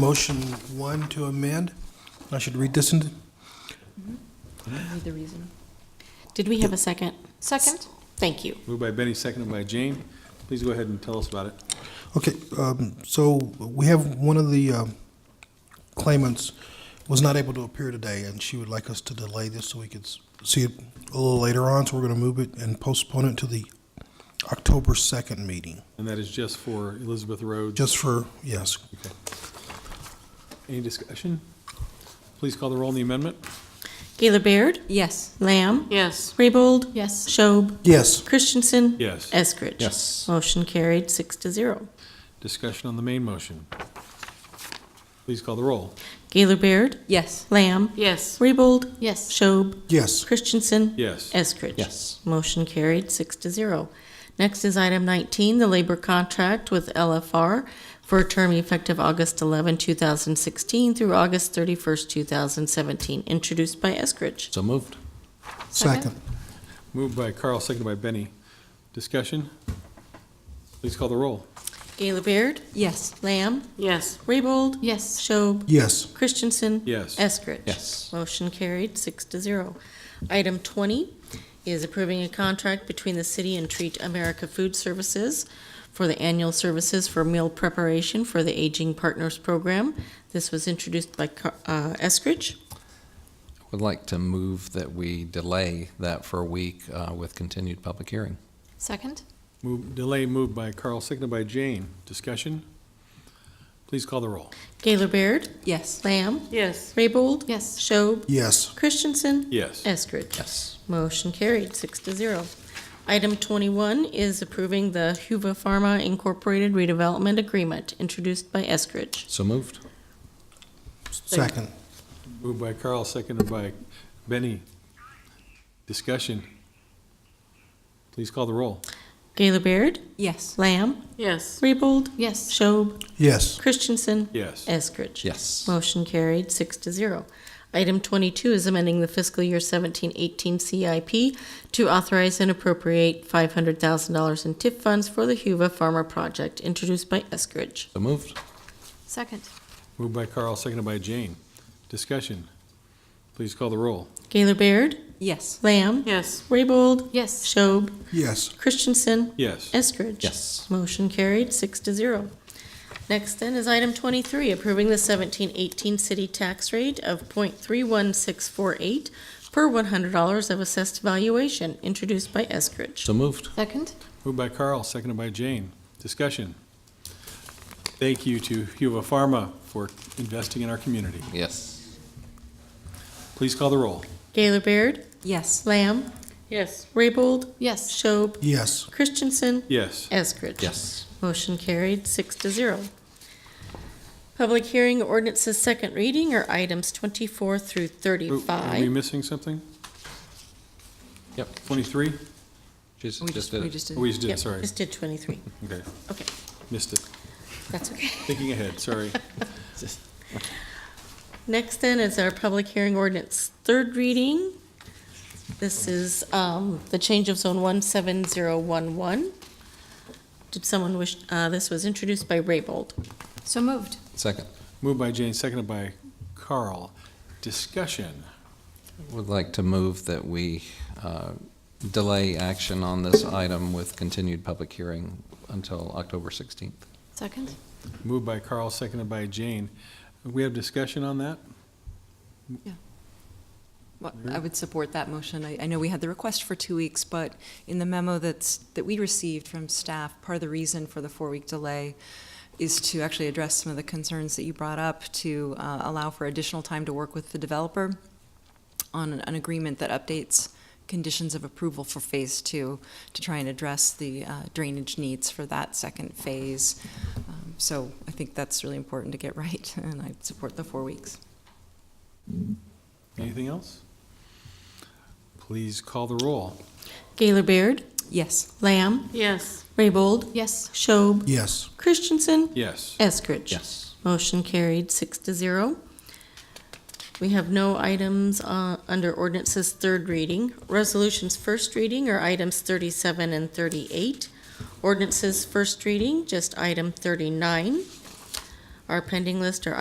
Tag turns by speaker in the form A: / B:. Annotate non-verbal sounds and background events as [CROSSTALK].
A: Motion one to amend. I should read this in,
B: Read the reason. Did we have a second?
C: Second.
B: Thank you.
D: Moved by Benny, seconded by Jane. Please go ahead and tell us about it.
A: okay, um, so we have one of the um, claimants was not able to appear today, and she would like us to delay this so we could s- see it a little later on, so we're going to move it and postpone it to the October 2nd meeting,
D: And that is just for Elizabeth Rhodes.
A: just for, yes.
D: Any discussion? Please call the roll on the amendment.
B: Gaylor Baird?
C: Yes.
B: Lamb?
C: Yes.
B: Raybold?
C: Yes.
B: Schob?
A: Yes,
B: Christensen?
D: Yes.
B: Eskridge?
D: Yes.
B: Motion carried, six to zero.
D: Discussion on the main motion. Please call the roll.
B: Gaylor Baird?
C: Yes.
B: Lamb?
C: Yes.
B: Raybold?
C: Yes.
B: Schob?
A: yes,
B: Christensen?
D: Yes.
B: Eskridge?
E: Yes.
B: Motion carried, six to zero. Next is item 19, the labor contract with LFR for a term effective August 11, 2016 through August 31st, 2017, introduced by Eskridge.
E: So moved.
A: second.
D: Moved by Carl, seconded by Benny. Discussion? Please call the roll.
B: Gaylor Baird?
C: Yes.
B: Lamb?
C: Yes.
B: Raybold?
C: Yes.
B: Schob?
A: Yes,
B: Christensen?
D: Yes.
B: Eskridge?
E: Yes.
B: Motion carried, six to zero. Item 20 is approving a contract between the city and Treat America Food Services for the annual services for meal preparation for the Aging Partners Program. This was introduced by Car- uh, Eskridge.
E: Would like to move that we delay that for a week uh, with continued public hearing.
C: Second.
D: Move, delay moved by Carl, seconded by Jane. Discussion? Please call the roll.
B: Gaylor Baird?
C: Yes.
B: Lamb?
C: Yes.
B: Raybold?
C: Yes.
B: Schob?
A: yes,
B: Christensen?
D: Yes.
B: Eskridge?
E: Yes.
B: Motion carried, six to zero. Item 21 is approving the Huva Pharma Incorporated redevelopment agreement, introduced by Eskridge.
E: So moved.
A: second.
D: Moved by Carl, seconded by Benny. Discussion? Please call the roll.
B: Gaylor Baird?
C: Yes.
B: Lamb?
C: Yes.
B: Raybold?
C: Yes.
B: Schob?
A: Yes,
B: Christensen?
D: Yes.
B: Eskridge?
E: Yes.
B: Motion carried, six to zero. Item 22 is amending the fiscal year 17-18 CIP to authorize and appropriate $500,000 in TIF funds for the Huva Pharma Project, introduced by Eskridge.
E: So moved.
C: Second.
D: Moved by Carl, seconded by Jane. Discussion. Please call the roll.
B: Gaylor Baird?
C: Yes.
B: Lamb?
C: Yes.
B: Raybold?
C: Yes.
B: Schob?
A: yes,
B: Christensen?
D: Yes.
B: Eskridge?
E: Yes.
B: Motion carried, six to zero. Next then is item twenty-three, approving the seventeen eighteen city tax rate of point three one six four eight per one hundred dollars of assessed valuation, introduced by Eskridge.
E: So moved.
C: Second.
D: Moved by Carl, seconded by Jane. Discussion. Thank you to Huva Pharma for investing in our community.
E: Yes.
D: Please call the roll.
B: Gaylor Baird?
C: Yes.
B: Lamb?
C: Yes.
B: Raybold?
C: Yes.
B: Schob?
A: yes,
B: Christensen?
D: Yes.
B: Eskridge?
E: Yes.
B: Motion carried, six to zero. Public hearing ordinances second reading are items twenty-four through
D: Oh, Are we
B: thirty-five.
D: missing something?
E: Yep.
D: 23?
E: She's
C: We
E: just
C: just,
E: did
C: we
E: it.
C: just did.
D: Oh, we just did,
B: Yep,
D: it, sorry.
B: Just did twenty-three.
D: Okay,
B: Okay,
D: missed it.
B: that's okay.
D: Thinking ahead, sorry.
B: Next then is our public hearing ordinance, third reading. This is um, the change of zone 17011. Did someone wish, uh, this was introduced by Raybold.
C: So moved.
E: Second.
D: Moved by Jane, seconded by Carl. Discussion.
E: Would like to move that we uh, delay action on this item with continued public hearing until October 16th.
C: Second.
D: Moved by Carl, seconded by Jane. We have discussion on that?
F: Well, I would support that motion. I, I know we had the request for two weeks, but in the memo that's, that we received from staff, part of the reason for the four-week delay is to actually address some of the concerns that you brought up, to uh, allow for additional time to work with the developer on an- an agreement that updates conditions of approval for Phase Two to try and address the uh, drainage needs for that second phase. Um, So I think that's really important to get [LAUGHS] right, and I support the four weeks.
D: Anything else? Please call the roll.
B: Gaylor Baird?
F: Yes.
B: Lamb?
C: Yes.
B: Raybold?
C: Yes.
B: Schob?
A: yes,
B: Christensen?
D: Yes.
B: Eskridge?
E: Yes.
B: Motion carried, six to zero. We have no items uh, under ordinances third reading. Resolutions first reading are items 37 and 38. Ordinances first reading, just item 39. Our pending list are